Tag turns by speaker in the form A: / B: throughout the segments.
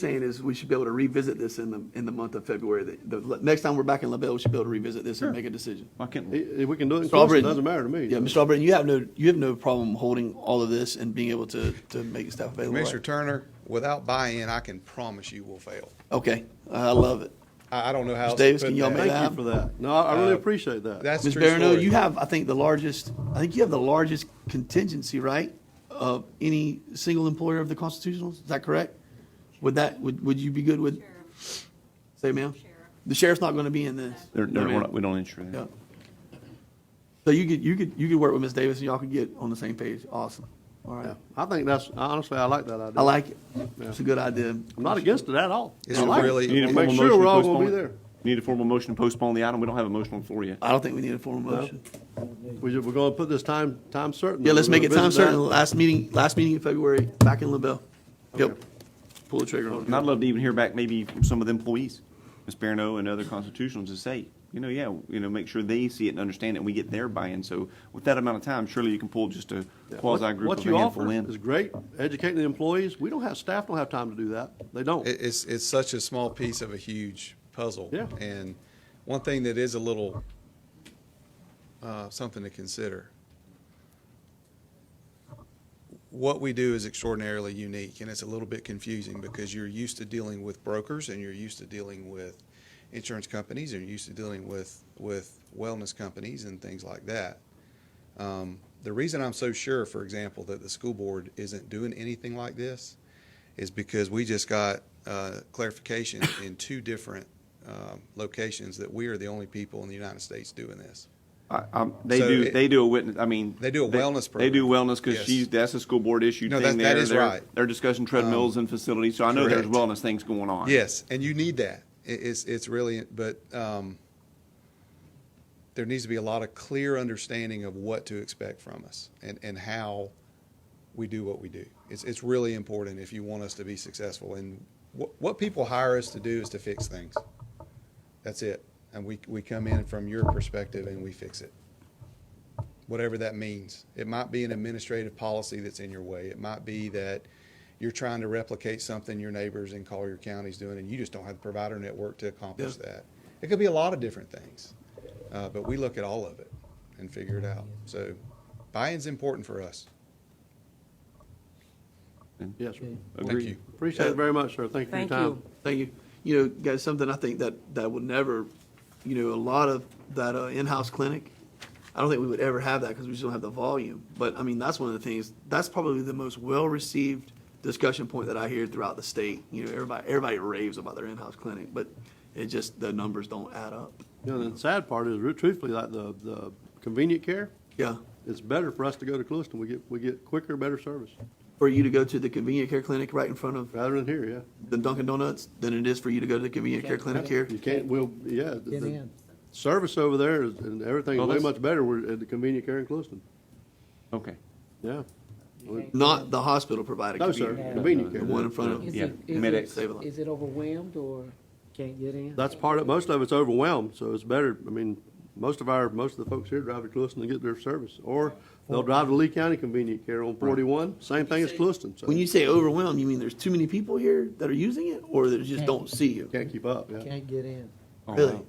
A: saying is we should be able to revisit this in the, in the month of February. The, the next time we're back in LaBelle, we should be able to revisit this and make a decision.
B: Why can't we?
C: If if we can do it in
A: Mr.
C: Clemson, it
A: Albritton-
C: doesn't matter to me.
A: Yeah, Mr. Albritton, you have no, you have no problem holding all of this and being able to, to make staff available.
D: Commissioner
A: right?
D: Turner, without buy-in, I can promise you will fail.
A: Okay, I love it.
D: I, I don't know
A: Mr.
D: how. else to
A: Davis,
D: put
A: can y'all
D: that.
A: make that
C: Thank you
A: happen?
C: for that. No, I I really
D: Uh,
C: appreciate that.
D: That's
A: Ms.
D: true
A: Barano,
D: story.
A: you have, I think, the largest, I think you have the largest contingency, right? Of any single employer of the constitutionals, is that correct? Would that, would, would you be good with? Say, ma'am? The sheriff's not gonna be in this.
B: They're,
A: No,
B: they're, we're
A: ma'am.
B: not, we don't insure
A: Yeah.
B: that.
A: So you could, you could, you could work with Ms. Davis and y'all could get on the same page. Awesome. All
C: Yeah.
A: right.
C: I think that's, honestly, I like that idea.
A: I like it. It's a good idea.
C: I'm not against it at all.
D: Is
C: I
D: it
C: like
D: really-
B: You need a
D: Make
B: formal
C: sure
B: motion to
C: we're all gonna
B: postpone
C: be
B: it.
C: there.
B: You Need a formal motion to postpone the item. We don't have a motion on the floor yet.
A: I don't think we need a formal motion.
C: We ju- We're going to put this time, time certain.
A: Yeah, let's
C: We're
A: make it
C: gonna
A: time
C: visit that.
A: certain. Last meeting, last meeting in February, back in LaBelle. Yep.
C: Okay.
A: Pull the trigger on it.
B: And I'd love to even hear back maybe from some of the employees, Ms. Barano and other constitutionals to say, you know, yeah, you know, make sure they see it and understand it and we get their buy-in. So with that amount of time, surely you can pull just a
C: Yeah.
B: quasi
C: What-
B: group of
C: What
B: a
C: you
B: handful
C: offer
B: in.
C: is great, educating the employees. We don't have, staff don't have time to do that. They don't.
D: It, it's, it's such a small piece of a huge puzzle.
C: Yeah.
D: And one thing that is a little, uh, something to consider. What we do is extraordinarily unique and it's a little bit confusing because you're used to dealing with brokers and you're used to dealing with insurance companies and you're used to dealing with, with wellness companies and things like that. Um, the reason I'm so sure, for example, that the school board isn't doing anything like this is because we just got uh, clarification in two different um, locations that we are the only people in the United States doing this.
B: I- I'm- They
D: So
B: do,
D: it-
B: they do a witness, I mean.
D: They do a wellness
B: They do
D: program.
B: wellness because
D: Yes.
B: she's, that's a school board issue
D: No,
B: thing there.
D: that- that is
B: They're-
D: right. Um,
B: They're discussing treadmills and facilities, so I know there's
D: correct.
B: wellness things going on.
D: Yes, and you need that. It, it's it's really, but um, there needs to be a lot of clear understanding of what to expect from us and and how we do what we do. It's it's really important if you want us to be successful. And what what people hire us to do is to fix things. That's it. And we we come in from your perspective and we fix it. whatever that means. It might be an administrative policy that's in your way. It might be that you're trying to replicate something your neighbors in Collier County's doing, and you just don't have the provider network to accomplish that. It could be a lot of different things, uh, but we look at all of it and figure it out. So buy-in's important for us.
C: Yes, sir.
D: Thank you.
C: Appreciate it very much, sir. Thank you for your
E: Thank
C: time.
E: you.
A: Thank you. You know, guys, something I think that, that would never, you know, a lot of that uh, in-house clinic, I don't think we would ever have that because we just don't have the volume. But I mean, that's one of the things, that's probably the most well-received discussion point that I hear throughout the state. You know, everybody, everybody raves about their in-house clinic, but it just, the numbers don't add up.
C: You know, the sad part is, truthfully, like the, the convenient care,
A: Yeah.
C: it's better for us to go to Clueston. We get, we get quicker, better service,
A: For you to go to the convenient care clinic right in front of
C: rather than here, yeah.
A: the Dunkin' Donuts than it is for you to go to the convenient care clinic here.
C: You can't, we'll, yeah. the-
E: Get
C: the
E: in.
C: Service over there is- and everything is
B: Well,
C: way
B: that's-
C: much better We're at the convenient care in Clueston.
B: Okay.
C: Yeah. We-
A: Not the hospital provided.
C: No, sir,
A: convenient care.
C: convenient
A: The
C: care.
A: one in front of
E: Is
B: Yeah,
E: it, is
B: medics.
A: Save a lot.
E: it, is it overwhelmed or can't get in?
C: That's part of, most of it's overwhelmed, so it's better, I mean, most of our, most of the folks here drive to Clueston to get their service. Or they'll drive to Lee County Convenient Care on forty-one, same thing as Clueston, so
A: When you say overwhelmed, you mean there's too many people here that are using it, or that just don't see you?
C: can't keep up, yeah.
E: Can't get in.
A: Really?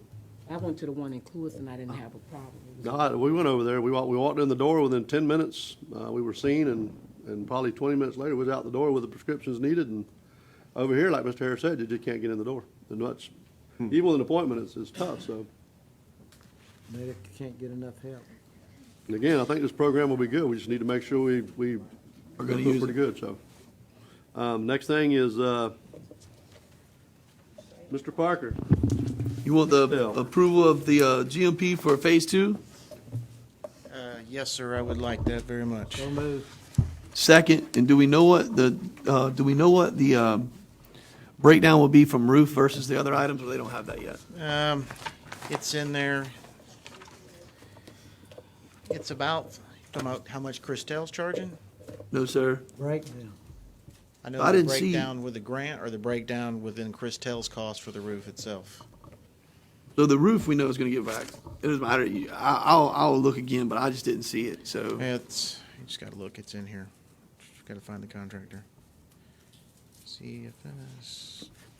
E: I went to the one in Cluis and I didn't have a problem. It was-
C: God, we went over there. We walked, we walked in the door within ten minutes. Uh, we were seen and, and probably twenty minutes later was out the door with the prescriptions needed and over here, like Mr. Harris said, you just can't get in the door. And that's,
A: Hmm.
C: even with an appointment, it's, it's tough, so.
E: Medic can't get enough help.
C: And again, I think this program will be good. We just need to make sure we, we.
A: Are gonna
C: do
A: use it.
C: Pretty good, so. Um, next thing is, uh, Mr. Parker.
A: You want the
C: Yeah.
A: approval of the uh, GMP for phase two?
F: Uh, Yes, sir, I would like that very much.
E: Don't move.
A: Second, and do we know what the, uh, do we know what the um, breakdown will be from roof versus the other items, or they don't have that yet?
F: Um, It's in there. It's about, talking about how much Christel's charging?
A: No, sir.
E: Breakdown.
F: I
A: I
F: know the
A: didn't see-
F: breakdown with the grant or the breakdown within Christel's cost for the roof itself.
A: So the roof we know is gonna get back. It doesn't matter, You- I, I'll, I'll look again, but I just didn't see it, so.
F: It's, you just gotta look, it's in here. Just Gotta find the contractor. see if it is.